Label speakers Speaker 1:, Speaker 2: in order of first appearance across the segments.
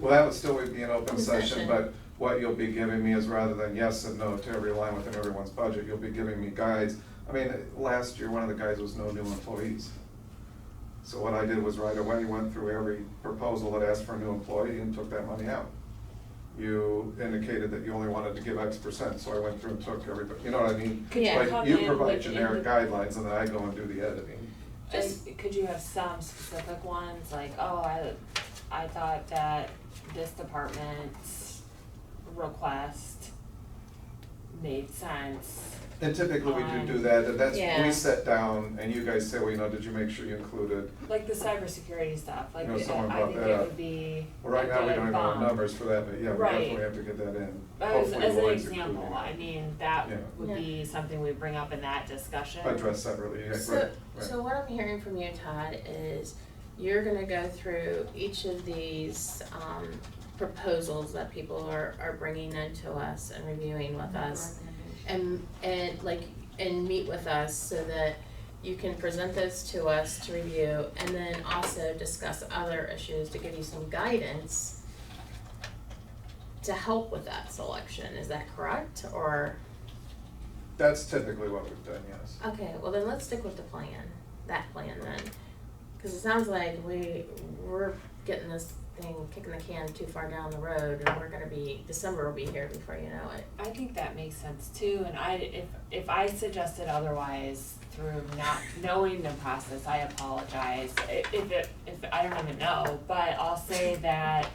Speaker 1: Well, that would still be an open
Speaker 2: Open
Speaker 1: session,
Speaker 2: session.
Speaker 1: but what you'll be giving me is rather than yes and no to every line within everyone's budget, you'll be giving me guides. I mean, last year, one of the guides was no new employees. So what I did was right away, went through every proposal that asked for a new employee and took that money out. You indicated that you only wanted to give X percent, so I went through and took everybody, you know what I mean?
Speaker 3: Could you
Speaker 1: Like,
Speaker 3: come in
Speaker 1: You provide
Speaker 3: with-
Speaker 1: generic guidelines and then I go and do the editing.
Speaker 2: Just-
Speaker 3: And could you have some specific ones, like, oh, I, I thought that this department's request made sense.
Speaker 1: And typically we do do
Speaker 3: Um,
Speaker 1: that, and that's, we
Speaker 2: yeah.
Speaker 1: sit down and you guys say, well, you know, did you make sure you included?
Speaker 3: Like the cybersecurity stuff, like,
Speaker 1: You know, someone
Speaker 3: I
Speaker 1: brought
Speaker 3: think
Speaker 1: that
Speaker 3: it
Speaker 1: up.
Speaker 3: would be
Speaker 1: Well, right now, we
Speaker 3: a
Speaker 1: don't even have
Speaker 3: bomb.
Speaker 1: numbers for that, but yeah, we
Speaker 3: Right.
Speaker 1: definitely have to get that in.
Speaker 3: As,
Speaker 1: Hopefully,
Speaker 3: as an
Speaker 1: Lloyd's
Speaker 3: example,
Speaker 1: including
Speaker 3: I
Speaker 1: it.
Speaker 3: mean, that
Speaker 1: Yeah.
Speaker 3: would be something we bring up in that discussion.
Speaker 1: Address separately, yeah, right,
Speaker 2: So, so
Speaker 1: right.
Speaker 2: what I'm hearing from you, Todd, is you're gonna go through each of these, um, proposals that people are, are bringing into us and reviewing with
Speaker 3: Mm-hmm.
Speaker 2: us. And, and like, and meet with us so that you can present those to us to review and then also discuss other issues to give you some guidance to help with that selection, is that correct, or?
Speaker 1: That's typically what we've done, yes.
Speaker 2: Okay, well then let's stick with the plan, that plan then. Cause it sounds like we, we're getting this thing, kicking the can too far down the road and we're gonna be, December will be here before you know it.
Speaker 3: I think that makes sense too, and I, if, if I suggested otherwise through not knowing the process, I apologize. I- If it, if, I don't even know, but I'll say that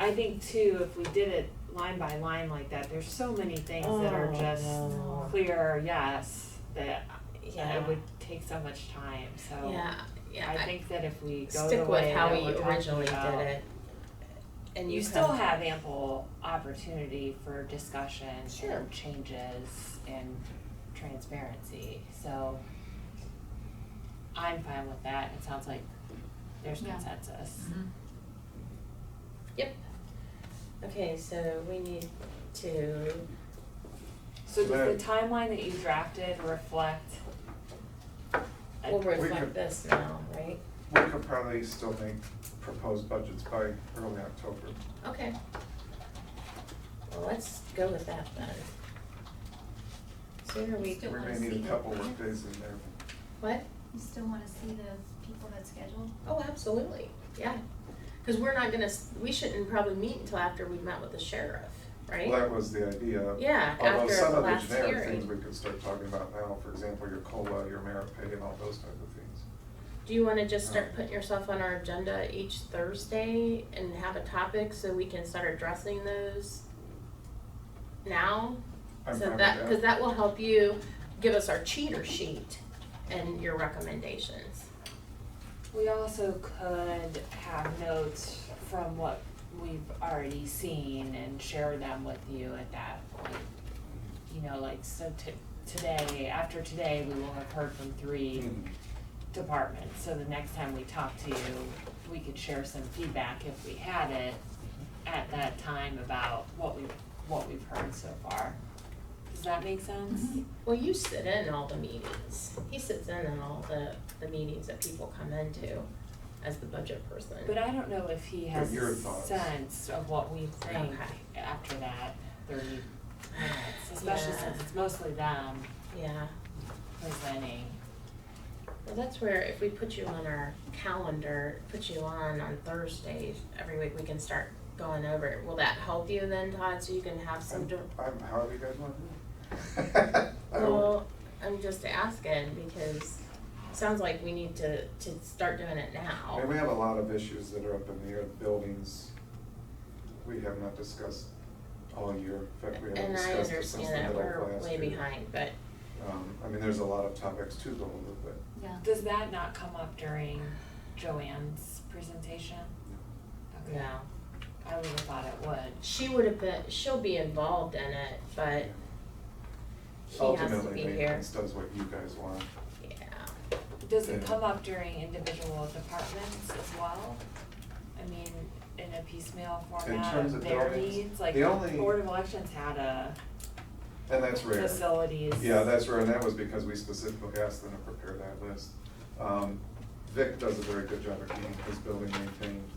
Speaker 3: I think too, if we did it line by line like that, there's so many things that are
Speaker 2: Oh,
Speaker 3: just
Speaker 2: no.
Speaker 3: clear, yes, that it would take so much time, so.
Speaker 2: Yeah, yeah,
Speaker 3: I
Speaker 2: I
Speaker 3: think that if we go the
Speaker 2: stick with
Speaker 3: way
Speaker 2: how
Speaker 3: that
Speaker 2: we
Speaker 3: we're talking
Speaker 2: originally did it.
Speaker 3: about,
Speaker 2: And
Speaker 3: you
Speaker 2: you
Speaker 3: still
Speaker 2: come-
Speaker 3: have ample opportunity for discussion
Speaker 2: Sure.
Speaker 3: and changes and transparency, so I'm fine with that, it sounds like there's
Speaker 4: Yeah.
Speaker 3: consensus.
Speaker 2: Yep. Okay, so we need to,
Speaker 3: So does the
Speaker 1: Right.
Speaker 3: timeline that you drafted reflect? a-
Speaker 2: we'll
Speaker 1: could-
Speaker 2: reflect this now, right?
Speaker 1: We could probably still make proposed budgets by early October.
Speaker 2: Okay. Well, let's go with that then. Sooner we,
Speaker 4: Still
Speaker 1: We
Speaker 4: wanna
Speaker 1: may need
Speaker 4: see
Speaker 1: a couple
Speaker 4: it.
Speaker 1: work days in there.
Speaker 2: what?
Speaker 4: You still wanna see the people that scheduled?
Speaker 2: Oh, absolutely, yeah. Cause we're not gonna, s- we shouldn't probably meet until after we met with the sheriff,
Speaker 1: Well,
Speaker 2: right?
Speaker 1: that was the idea.
Speaker 2: Yeah,
Speaker 1: Although
Speaker 2: after
Speaker 1: some
Speaker 2: the
Speaker 1: of the
Speaker 2: last
Speaker 1: generic things
Speaker 2: hearing.
Speaker 1: we could start talking about now, for example, your COLA, your merit pay, and all those type of things.
Speaker 2: Do you wanna just
Speaker 1: Uh-huh.
Speaker 2: start putting yourself on our agenda each Thursday and have a topic so we can start addressing those now?
Speaker 1: I'm fine
Speaker 2: So
Speaker 1: with
Speaker 2: that, cause that will help you give us our cheater sheet and your recommendations.
Speaker 3: We also could have notes from what we've already seen and share them with you at that point. You know, like, so to, today, after today, we will have heard from three
Speaker 1: Mhm.
Speaker 3: departments, so the next time we talk to you, we could share some feedback if we had it at that time about what we, what we've heard so far. Does that make sense?
Speaker 2: Well, you sit in all the meetings. He sits in on all the, the meetings that people come into as the budget person.
Speaker 3: But I don't know if he has
Speaker 1: your
Speaker 3: a
Speaker 1: thoughts.
Speaker 3: sense of what we think
Speaker 2: Okay.
Speaker 3: after that thirty minutes, especially
Speaker 2: Yeah.
Speaker 3: since it's mostly them
Speaker 2: Yeah,
Speaker 3: presenting.
Speaker 2: well, that's where if we put you on our calendar, put you on on Thursdays, every week we can start going over it. Will that help you then, Todd, so you can have some, dir-
Speaker 1: I'm, I'm, however you guys want to do it. Um, I don't-
Speaker 2: well, I'm just asking because it sounds like we need to, to start doing it
Speaker 1: I
Speaker 2: now.
Speaker 1: mean, we have a lot of issues that are up in the air, buildings we have not discussed all year. In fact, we haven't
Speaker 2: And I
Speaker 1: discussed it since
Speaker 2: understand
Speaker 1: the
Speaker 2: that
Speaker 1: middle of last year.
Speaker 2: we're way behind, but
Speaker 1: Um, I mean, there's a lot of topics to go over, but
Speaker 4: Yeah.
Speaker 3: Does that not come up during Joanne's presentation?
Speaker 2: no.
Speaker 3: Okay, I would have thought it would.
Speaker 2: She would have been, she'll be involved in it, but he has to be
Speaker 1: ultimately,
Speaker 2: here.
Speaker 1: maintenance does what you guys want.
Speaker 2: Yeah.
Speaker 3: Does it
Speaker 1: Yeah.
Speaker 3: come up during individual departments as well? I mean, in a piecemeal format
Speaker 1: terms of
Speaker 3: of their
Speaker 1: buildings,
Speaker 3: needs, like
Speaker 1: the only-
Speaker 3: Board of Elections had a
Speaker 1: And that's rare.
Speaker 3: facilities.
Speaker 1: Yeah, that's rare, and that was because we specifically asked them to prepare that list. Um, Vic does a very good job of keeping his building maintained.